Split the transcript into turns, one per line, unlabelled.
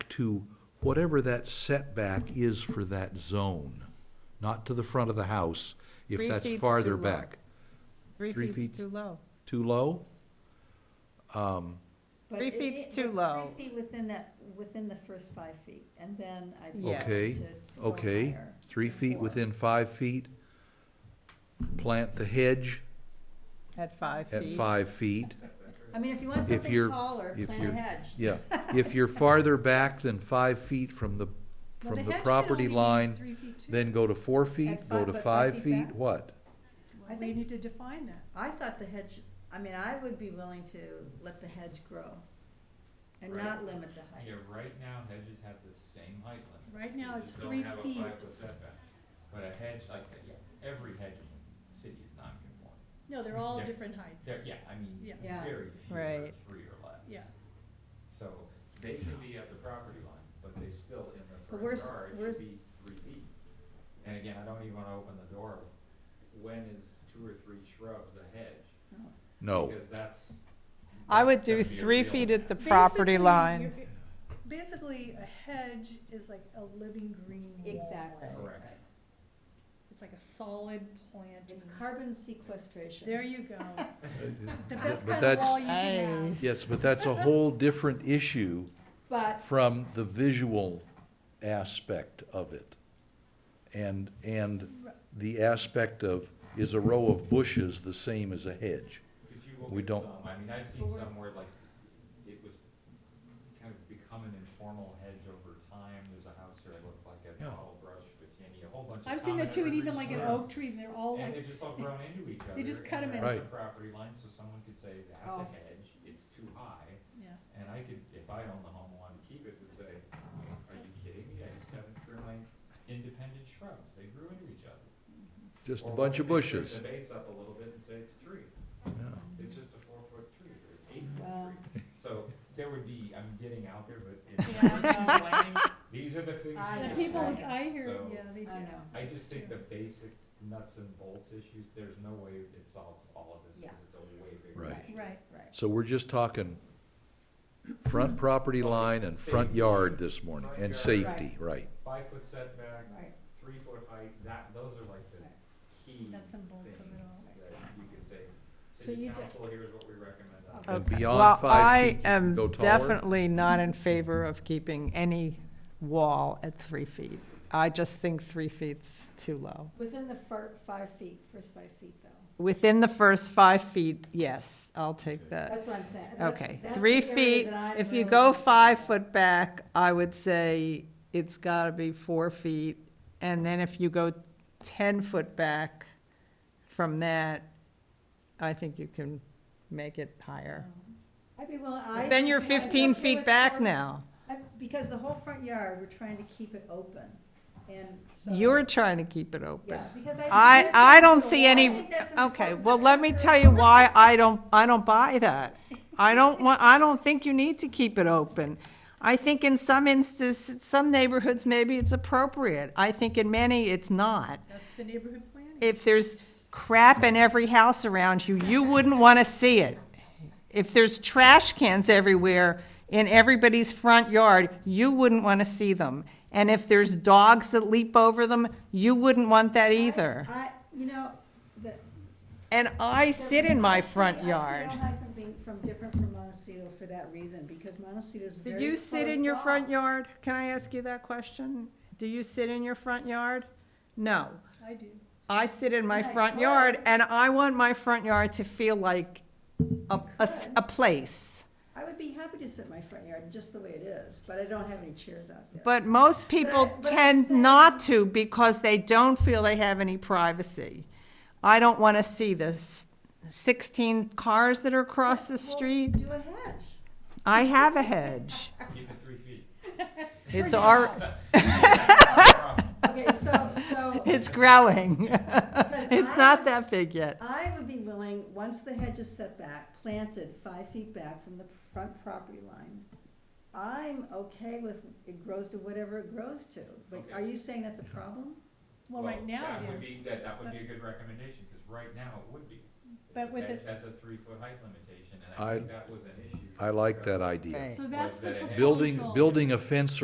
to whatever that setback is for that zone, not to the front of the house, if
Three
that's
feet's
farther
too low.
back.
Three
Three feet.
feet's too low.
Too low?
But
Three
it-
feet's
it-
too
but
low.
Three feet within that, within the first five feet, and then I.
Yes.
Okay,
said go
okay.
higher
Three
to
feet
four.
within five feet. Plant the hedge
At five
at
feet.
five feet.
I mean, if you want
If
something
you're-
taller,
if
plant a
you're-
hedge.
Yeah, if you're farther back than five feet from the, from the property line, then go to four feet,
At
go
five-
to
but five
five
feet
feet,
back?
what?
I
We
think-
need to define that.
I thought the hedge, I mean, I would be willing to let the hedge grow and
Right.
not limit the height.
Yeah, right now hedges have the same height limit.
Right now,
They
it's
just don't
three
have a
feet.
five-foot setback. But a hedge like that, yeah, every hedge in the city is non-conforming.
No, they're all
Yeah.
different heights.
There, yeah, I mean,
Yeah.
Yeah.
very few are
Right.
three or less.
Yeah.
So they can be at the property line, but they still in the
But
front
where's-
yard
where's-
should be three feet. And again, I don't even wanna open the door, when is two or three shrubs a hedge?
No,
Because that's.
Oh. I would
that's
do
gonna be a
three
real
feet at the
mess.
Property
Basically,
line.
you're- Basically, a hedge is like a living green wall.
Exactly.
Correct.
It's like a solid plant.
It's carbon sequestration.
There you go. The
But-
best
but
kind of
that's-
wall you can have.
yes, but that's a whole different issue
But
from the visual aspect of it. And, and the aspect of, is a row of bushes the same as a hedge?
Because you will
We
get
don't-
some, I mean, I've seen some where like, it was kind of become an informal hedge over time, there's a house here, I looked like a
Yeah.
tall brush, vitinia, a whole bunch of
I've seen that
common
too, and
evergreen
even like an
shrubs.
oak tree, and they're all
And
like,
they're just all grown into each other.
They just cut 'em
and
in.
they're on
Right.
the property line, so someone could say, that's
Oh.
a hedge, it's too high,
yeah.
and I could, if I owned the home and wanted to keep it, would say, are you kidding me, I just haven't grown my independent shrubs, they grew into each other.
Just a
Or
bunch of
what if they turn
bushes.
The base up a little bit and say it's a tree.
Yeah.
It's just a four foot tree or an eight
Wow.
foot tree. So there would be, I'm getting out there, but it's
Yeah, I
planning, these are the things.
I
you
And
know,
do.
people,
I know.
I hear,
So-
yeah, they do.
I know.
I just think the basic nuts and bolts issues, there's no way it solves all of this
Yeah.
because it's a way bigger.
Right.
issue.
Right.
Right.
So we're just talking front property line and front
Safety.
yard this morning, and
Front
yard.
safety, right.
Five foot setback,
Right.
three foot height, that, those are like the
Right.
key
Nuts
things
and bolts of it all.
that you could say,
So
city
you ju-
council, here's what we recommend. on
Okay.
And beyond
Well,
five feet,
I
you can
am
go taller.
definitely not in favor of keeping any wall at three feet. I just think three feet's too low.
Within the fir- five feet, first five feet though.
Within the first five feet, yes, I'll take that.
That's what I'm saying. That's-
Okay,
that's the
three
area
feet,
that I'm
if you
really
go
concerned
five
about.
foot back, I would say it's gotta be four feet. And then if you go ten foot back from that, I think you can make it higher.
I'd be willing, I.
Then you're
I'd be
fifteen
okay
feet
with
back
four-
now.
I- Because the whole front yard, we're trying to keep it open, and so.
You're trying to keep it open.
Yeah, because I.
I,
that's
I
what
don't
people
see
want. I
any,
think that's an
okay,
important
well, let me
factor.
tell you why I don't, I don't buy that. I don't want, I don't think you need to keep it open. I think in some instances, some neighborhoods, maybe it's appropriate. I think in many, it's not.
That's the neighborhood planning.
If there's crap in every house around you, you wouldn't want to see it. If there's trash cans everywhere in everybody's front yard, you wouldn't want to see them. And if there's dogs that leap over them, you wouldn't want that either.
I, you know, the.
And I sit in my front
I
yard.
see Ojai from being, from different from Montecito for that reason, because Montecito's
Do
very.
you sit in
closed
your front
off.
yard? Can I ask you that question? Do you sit in your front yard? No.
I do.
I sit in my
Right,
front
right.
yard and I want my front yard to feel like a, a s-
Good.
a place.
I would be happy to sit in my front yard, just the way it is, but I don't have any chairs out there.
But most people
but I'm
tend
saying-
not to because they don't feel they have any privacy. I don't want to see the s- sixteen cars that are across the
Well,
street.
Do a hedge.
I have a hedge.
it. Keep it three feet.
It's our,
Okay, so, so.
it's growing.
because
It's
I-
not that big yet.
I would be willing, once the hedge is set back, planted five feet back from the front property line, I'm okay with it grows to whatever it grows to, but
Okay.
are you saying that's a problem?
Well, right now
That
it
would
is.
be, that, that would be a good recommendation, cause right now it would be.
But with
That
it-
has a three foot height limitation, and
I-
I think that was an issue.
I like that idea.
Right.
So that's the
that it
proposal.
has-
Building, building a fence